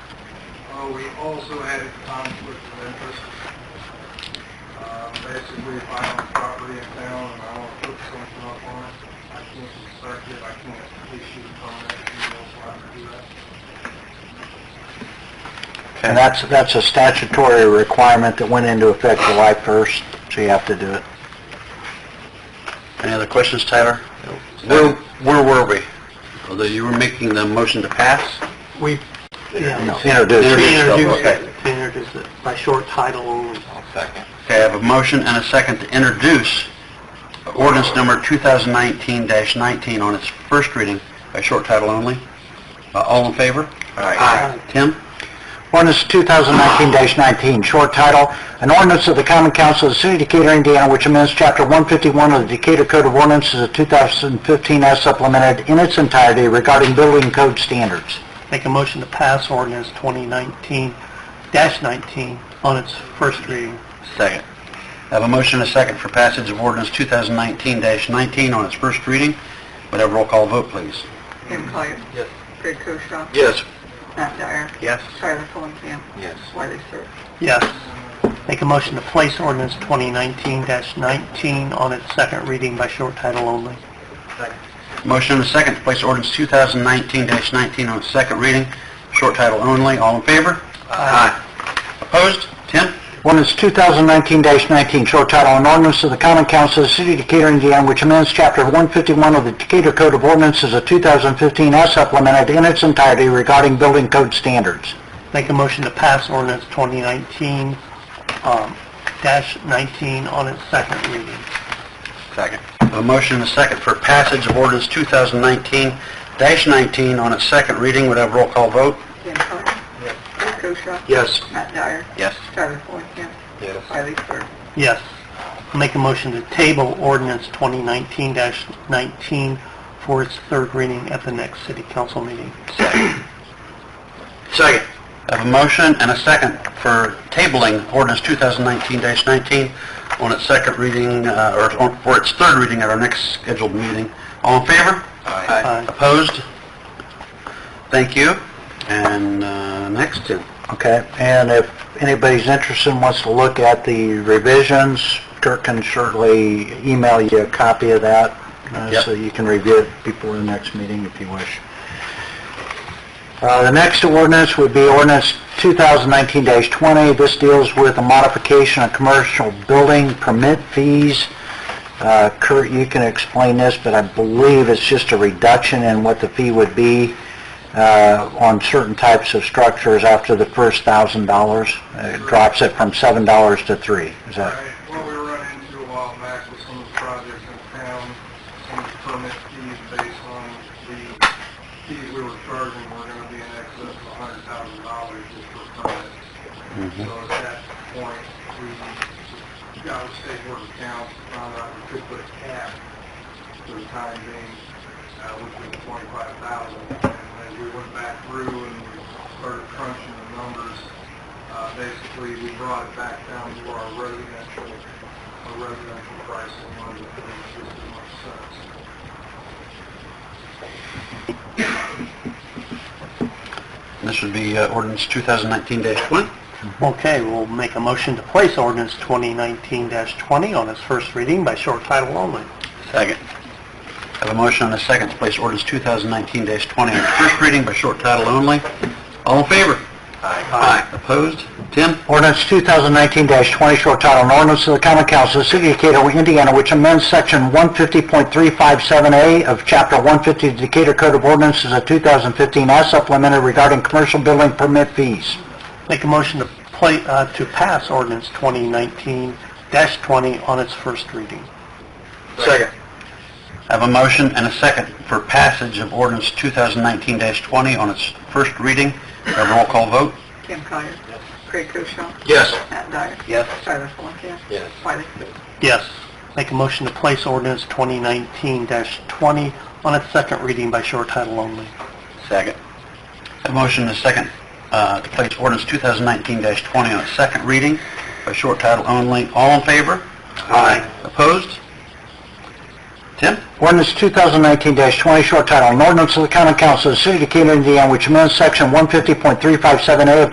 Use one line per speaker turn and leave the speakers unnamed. although Uh, we also had a conflict of interest. Uh, Basically, if I own property in town and I want to put something up on it, I can't inspect it, I can't issue a permit, you know, so I can do that.
And that's, that's a statutory requirement that went into effect July 1st, so you have to do it. Any other questions, Tyler? Where, where were we? Although you were making the motion to pass?
We, yeah,
Introduce.
introduced it, introduced it by short title only.
Second. Okay, I have a motion and a second to introduce ordinance number 2019-19 on its first reading by short title only. Uh, All in favor?
Aye.
Tim?
Ordinance 2019-19, short title, an ordinance of the Common Council of the City of Decatur, Indiana, which amends Chapter 151 of the Decatur Code of Ordinances of 2015 as supplemented in its entirety regarding building code standards.
Make a motion to pass ordinance 2019-19 on its first reading.
Second. I have a motion and a second for passage of ordinance 2019-19 on its first reading. Would have roll call vote, please?
Jim Collier.
Yes.
Craig Koshaw.
Yes.
Matt Dyer.
Yes.
Tyler Fulenkamp.
Yes.
Wiley Sir.
Yes. Make a motion to place ordinance 2019-19 on its second reading by short title only.
Motion and a second to place ordinance 2019-19 on its second reading, short title only. All in favor? Aye. Opposed? Tim?
Ordinance 2019-19, short title, an ordinance of the Common Council of the City of Decatur, Indiana, which amends Chapter 151 of the Decatur Code of Ordinances of 2015 as supplemented in its entirety regarding building code standards.
Make a motion to pass ordinance 2019, um, dash 19 on its second reading.
Second. A motion and a second for passage of ordinance 2019-19 on its second reading. Would have roll call vote?
Jim Collier. Craig Koshaw.
Yes.
Matt Dyer.
Yes.
Tyler Fulenkamp.
Yes.
Wiley Sir.
Yes. Make a motion to table ordinance 2019-19 for its third reading at the next city council meeting.
Second. I have a motion and a second for tabling ordinance 2019-19 on its second reading, uh, or on- for its third reading at our next scheduled meeting. All in favor?
Aye.
Opposed? Thank you. And uh, next, Tim.
Okay, and if anybody's interested and wants to look at the revisions, Kirk can certainly email you a copy of that, uh,
Yep.
so you can review it before the next meeting if you wish. Uh, The next ordinance would be ordinance 2019-20. This deals with a modification of commercial building permit fees. Uh, Kurt, you can explain this, but I believe it's just a reduction in what the fee would be uh, on certain types of structures after the first $1,000. It drops it from $7 to 3 Is
Right,
that,
what we run into a while back with some of the projects in town, some of the permit fees based on the fees we were charging were gonna be in excess of a hundred thousand dollars just for permits. So at that point, we got with state board of accounts, found out we could put a cap for the time being, uh, which was twenty-five thousand. And as we went back through and we started crunching the numbers, uh, basically, we brought it back down to our residential, our residential pricing on the thirty-six month sets.
This would be uh, ordinance 2019-20.
Okay, we'll make a motion to place ordinance 2019-20 on its first reading by short title only.
Second. I have a motion and a second to place ordinance 2019-20 on its first reading by short title only. All in favor? Aye. Opposed? Tim?
Ordinance 2019-20, short title, an ordinance of the common council of the city of Decatur, Indiana, which amends section 150.357A of chapter 150 of the Decatur Code of Ordinances of 2015 as supplemented regarding commercial building permit fees.
Make a motion to pla, uh, to pass ordinance 2019-20 on its first reading.
Second. I have a motion and a second for passage of ordinance 2019-20 on its first reading. Have a roll call vote?
Jim Collier. Craig Koshaw.
Yes.
Matt Dyer.
Yes.
Tyler Fulenkamp.
Yes.
Wiley Sir.
Yes. Make a motion to place ordinance 2019-20 on its second reading by short title only.
Second. A motion and a second uh, to place ordinance 2019-20 on its second reading by short title only. All in favor? Aye. Opposed? Tim?
Ordinance 2019-20, short title, an ordinance of the common council of the city of Decatur, Indiana, which amends section 150.357A of